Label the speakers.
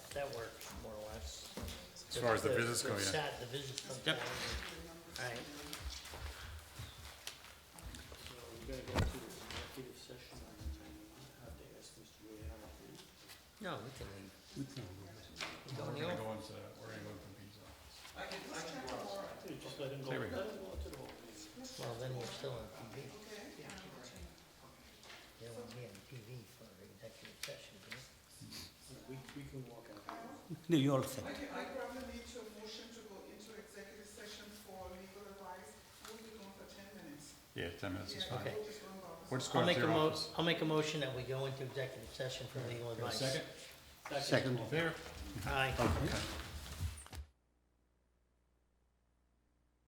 Speaker 1: that works more or less.
Speaker 2: As far as the business go, yeah.
Speaker 1: sat- The business comes
Speaker 2: Yep.
Speaker 1: down. Alright.
Speaker 3: So we're gonna go to the executive session and have to ask Mr. Giuliano.
Speaker 1: No, we can leave. We
Speaker 2: We're
Speaker 1: Don't
Speaker 2: gonna
Speaker 1: know.
Speaker 2: go into, we're gonna go into pizza.
Speaker 3: Dude, just let him go,
Speaker 2: There
Speaker 3: let
Speaker 2: we
Speaker 3: him
Speaker 2: go.
Speaker 3: go to the whole meeting.
Speaker 1: Well, then we're still on PV. Yeah, we'll be on PV for executive session, yeah?
Speaker 3: We, we can walk out.
Speaker 4: New York City.
Speaker 5: Okay, I probably need to motion to go into executive session for legal advice. We'll be gone for ten minutes.
Speaker 2: Yeah, ten minutes is fine.
Speaker 1: Okay.
Speaker 5: We'll just run about.
Speaker 2: We're just
Speaker 1: I'll
Speaker 2: going to
Speaker 1: make a
Speaker 2: your
Speaker 1: mo,
Speaker 2: office.
Speaker 1: I'll make a motion that we go into executive session for legal
Speaker 2: Got a
Speaker 1: advice.
Speaker 2: Second?
Speaker 4: Second.
Speaker 2: All in favor?
Speaker 1: Aye.
Speaker 4: Okay.